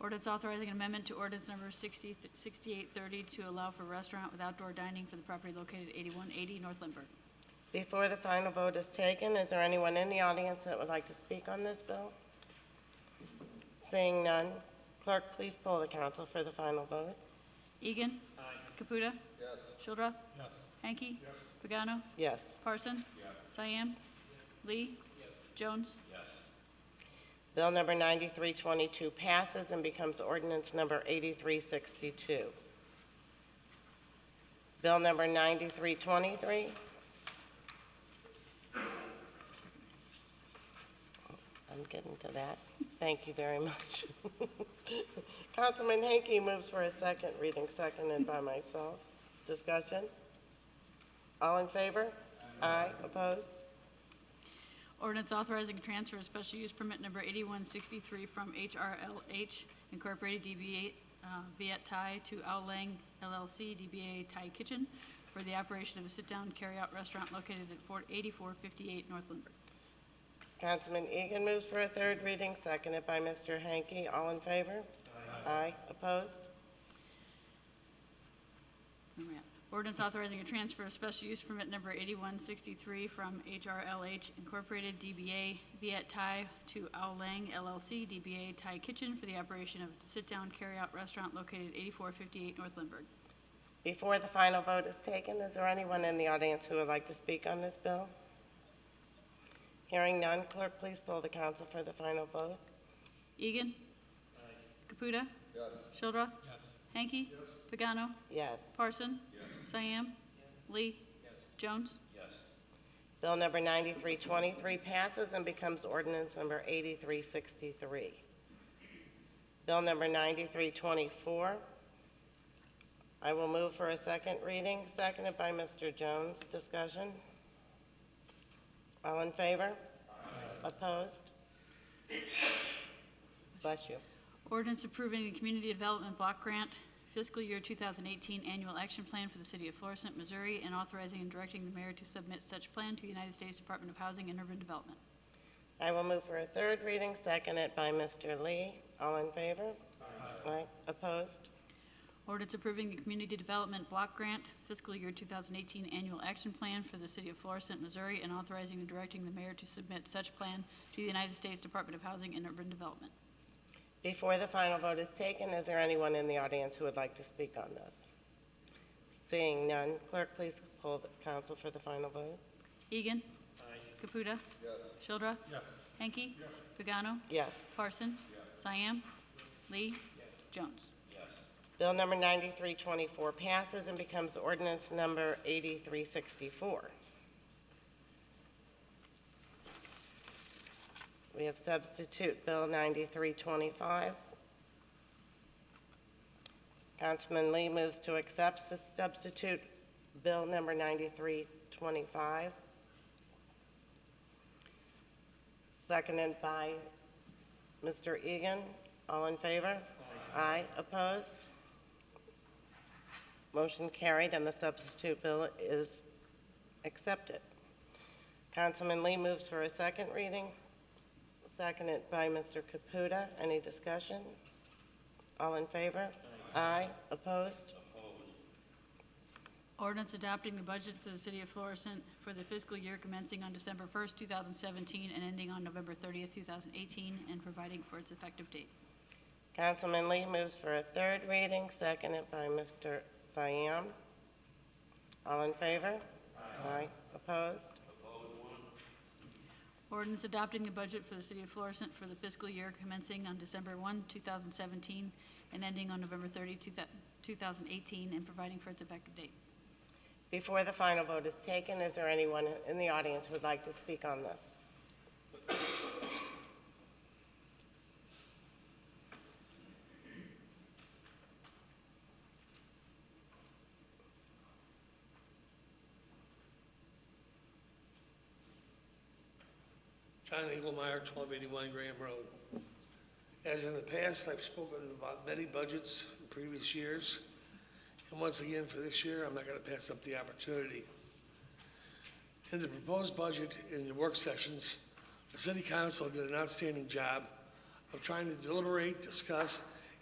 Ordinance authorizing an amendment to ordinance number 60 6830 to allow for restaurant with outdoor dining for the property located at 8180 North Lindbergh. Before the final vote is taken, is there anyone in the audience that would like to speak on this bill? Seeing none, clerk, please poll the council for the final vote. Egan. Aye. Caputa. yes, Shildroth. Yes. Hanky. Yes. Pagano. Yes. Parson. Yes. Cyan. Lee. Yes. Jones. Bill number 9322 passes and becomes ordinance number 8362. Bill number 9323. I'm getting to that. Thank you very much. Councilman Hanky moves for a second, reading seconded by myself. Discussion? All in favor? Aye. Opposed? Ordinance authorizing transfer of special use permit number 8163 from HRLH Incorporated DBA uh, Viet Thai to Ao Lang LLC DBA Thai Kitchen for the operation of a sit-down, carry-out restaurant located at 4- 8458 North Lindbergh. Councilman Egan moves for a third reading, seconded by Mr. Hanky. All in favor? Aye. Opposed? Where am I at? Ordinance authorizing a transfer of special use permit number 8163 from HRLH Incorporated DBA Viet Thai to Ao Lang LLC DBA Thai Kitchen for the operation of a sit-down, carry-out restaurant located at 8458 North Lindbergh. Before the final vote is taken, is there anyone in the audience who would like to speak on this bill? Hearing none, clerk, please poll the council for the final vote. Egan. Caputa. yes. Shildroth. Hanky. Pagano. Yes. Parson. Cyan. Lee. Jones. Bill number 9323 passes and becomes ordinance number 8363. Bill number 9324, I will move for a second reading, seconded by Mr. Jones. Discussion? All in favor? Opposed? Bless you. Ordinance approving the Community Development Block Grant Fiscal Year 2018 Annual Action Plan for the City of Florissant, Missouri, and authorizing and directing the mayor to submit such plan to the United States Department of Housing and Urban Development. I will move for a third reading, seconded by Mr. Lee. All in favor? Aye. Opposed? Ordinance approving the Community Development Block Grant Fiscal Year 2018 Annual Action Plan for the City of Florissant, Missouri, and authorizing and directing the mayor to submit such plan to the United States Department of Housing and Urban Development. Before the final vote is taken, is there anyone in the audience who would like to speak on this? Seeing none, clerk, please poll the council for the final vote. Egan. Caputa. Yes. Shildroth. Yes. Hanky. Pagano. Yes. Parson. Cyan. Lee. Jones. Bill number 9324 passes and becomes ordinance number 8364. We have substitute Bill 9325. Councilman Lee moves to accept the substitute Bill number 9325. Seconded by Mr. Egan. All in favor? Aye. Opposed? Motion carried, and the substitute bill is accepted. Councilman Lee moves for a second reading, seconded by Mr. Caputa. Any discussion? All in favor? Aye. Opposed? Ordinance adopting the budget for the city of Florissant for the fiscal year commencing on December 1st, 2017 and ending on November 30th, 2018, and providing for its effective date. Councilman Lee moves for a third reading, seconded by Mr. Siam. All in favor? Aye. Opposed? Ordinance adopting the budget for the city of Florissant for the fiscal year commencing on December 1, 2017 and ending on November 30, 2018, and providing for its effective date. Before the final vote is taken, is there anyone in the audience who would like to speak on this? John Engelmeyer, 1281 Graham Road. As in the past, I've spoken about many budgets in previous years, and once again for this year, I'm not going to pass up the opportunity. In the proposed budget in the work sessions, the city council did an outstanding job of trying to deliberate, discuss,